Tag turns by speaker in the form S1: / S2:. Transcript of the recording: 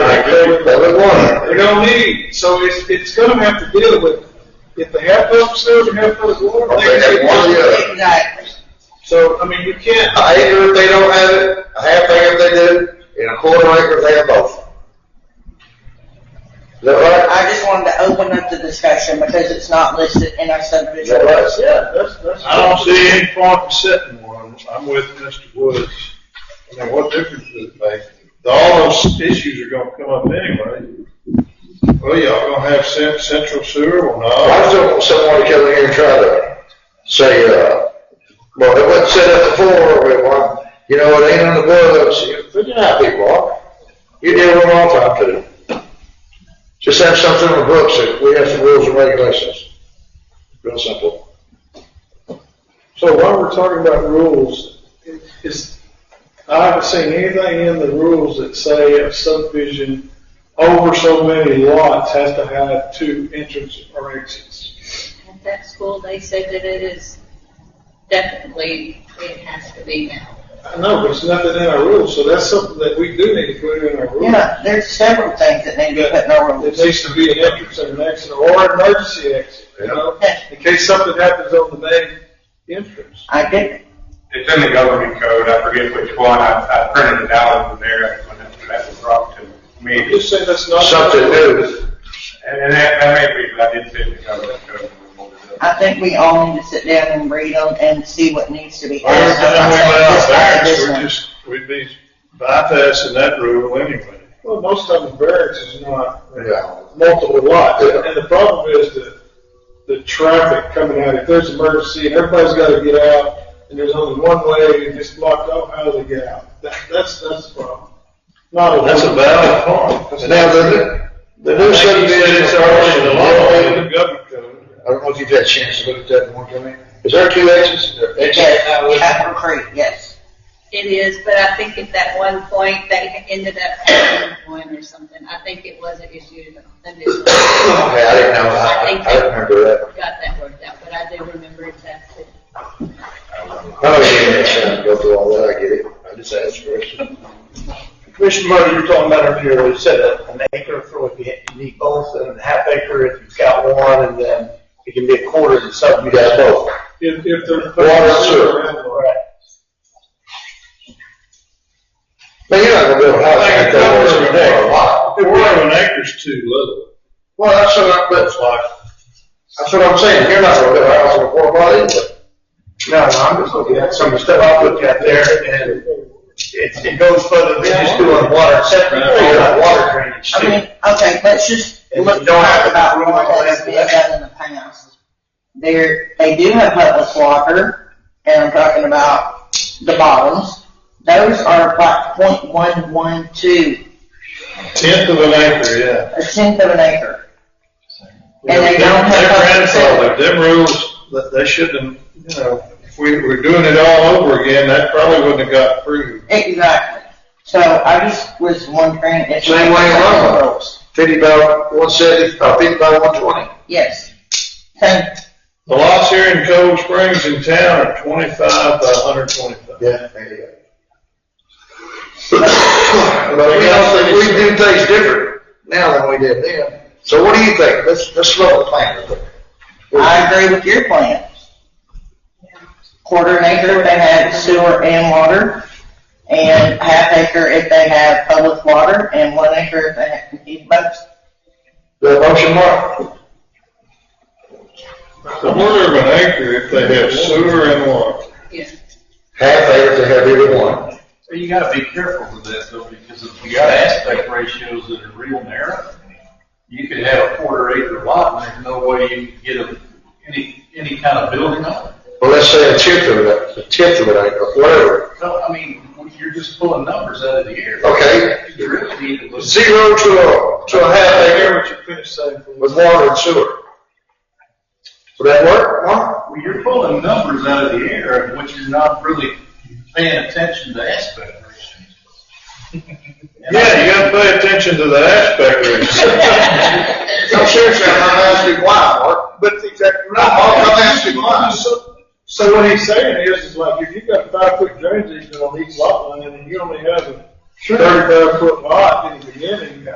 S1: it, so it's, it's gonna have to deal with, if the half of it's sewer and half of it's water.
S2: Okay, that one, yeah.
S3: Exactly.
S1: So, I mean, you can't,
S2: An acre if they don't have it, a half acre if they do, and a quarter acre if they have both. Is that right?
S3: I just wanted to open up the discussion because it's not listed in our
S2: Is that
S3: subdivision.
S2: right?
S4: Yeah, that's, that's.
S5: I don't see any point in setting one, I'm with Mr. Woods. I mean, what difference does it make? All those issues are gonna come up anyway. Well, y'all gonna have cent- central sewer, well,
S2: I
S5: no,
S2: just don't want someone to come in here and try to say, uh, well, it wasn't set up before, we want, you know, it ain't on the books, You- but you know how people are. You deal with them all the time too. Just have something on the books, that we have some rules and regulations. Real simple.
S4: So while we're talking about rules, is, I haven't seen anything in the rules that say a subdivision over so many lots has to have two entrances or exits.
S6: At that school, they said that it is definitely, it has to be now.
S4: I know, but it's nothing in our rules, so that's something that we do need to put in our rules.
S3: Yeah, there's several things that need to be put in our
S4: It
S3: rules.
S4: needs to be an entrance and an exit, or an emergency exit, you know, in case something happens on the main entrance.
S3: I did,
S7: It's in the governing code, I forget which one, I, I printed it out over there when that- when that was brought to
S4: I'm
S7: me.
S4: just saying that's not.
S2: Something new.
S7: And, and that, that may be, I did say the governing code. when we pulled it up.
S3: I think we all need to sit down and read them and see what needs to be.
S5: Well,
S3: added.
S5: then we went out
S3: Just
S5: there,
S3: this
S5: we're
S3: one.
S5: just, we'd be bypassing that rule anyway.
S4: Well, most of the barracks is not
S2: Yeah.
S4: multiple lots,
S2: Yeah.
S4: and the problem is the, the traffic coming out, if there's an emergency, and everybody's gotta get out, and there's only one way, and it's blocked off, how do they get out? That, that's, that's the problem. Not a.
S5: That's a valid point.
S2: Now, the, the new subdivisions are already in the law.
S5: government code.
S2: I don't know if you've had a chance to look at that one, Jimmy. Is there two exits? There- exit now,
S3: Yes,
S2: isn't there?
S3: Capitol Creek, yes.
S6: It is, but I think at that one point, they ended up having one or something. I think it was an issue, an issue.
S2: Okay, I didn't know, I, I don't remember that.
S6: Got that worked out, but I do remember exactly.
S2: I don't even have time to go through all that, I get it. I just asked for it.
S8: Commissioner Murray, you're talking about earlier, you said a- an acre for if you you need both, and a half acre if you've got one, and then it can be a quarter and something.
S2: You guys both.
S4: If, if they're.
S2: Water, sewer. Man, you're not gonna build a house like that on every day, a lot.
S5: If we're having acres too little.
S2: Well, that's what I'm, that's why. That's what I'm saying, you're not gonna build a house on a four lot either.
S8: No, no, I'm just looking at some of the stuff I looked at there, and it, it goes further than just doing water and septic, you're not water drainage.
S3: I
S8: too.
S3: mean, okay, let's just
S8: And
S3: look
S8: you don't have
S3: talk
S8: to-
S3: about
S8: you don't have
S3: rules
S8: to
S3: that's
S8: have
S3: been
S8: that.
S3: done in the past. There, they do have public water, and I'm talking about the bottoms. Those are about point one one two,
S5: Tenth of an acre, yeah.
S3: a tenth of an acre. And they
S5: They're
S3: don't have public
S5: grandfathered, them rules, that they shouldn't, you know, if we were doing it all over again, that probably wouldn't have got approved.
S3: Exactly. So I just was wondering if.
S2: Same way in Rome. Fifty by one seventy, uh, fifty by one twenty.
S3: Yes. Same,
S5: The lots here in Cold Springs in town are twenty-five by hundred twenty-five.
S2: Yeah. there you go. But we also, we do things different now than we did then. So what do you think? Let's, let's slow the plan a little bit.
S3: I agree with your plan. Quarter an acre if they have sewer and water, and half acre if they have public water, and one acre if they have, need both.
S2: The motion, Mark?
S5: A quarter of an acre if they have sewer and water.
S6: Yeah.
S2: Half acre to have either one.
S9: Well, you gotta be careful with that though, because if you got aspect ratios that are real narrow, you could have a quarter acre lot and there's no way you can get a, any, any kind of building on it.
S2: Well, let's say a tenth of it, a tenth of it, or whatever.
S9: No, I mean, you're just pulling numbers out of the air.
S2: Okay.
S9: You really need to look.
S2: Zero to a, to a half
S4: Hear
S2: acre
S4: what you finished saying. please.
S2: with water and sewer. Would that work, Mark?
S9: Well, you're pulling numbers out of the air, of which you're not really paying attention to aspect ratios.
S5: Yeah, you gotta pay attention to the aspect ratio.
S2: I'm serious, I'm not asking why, Mark.
S4: But it's exactly right.
S2: I'm not asking why.
S4: So- So what he's saying is, is like, if you've got five foot drainage easement on each lot line, and you only have a thirty-five foot lot in the beginning,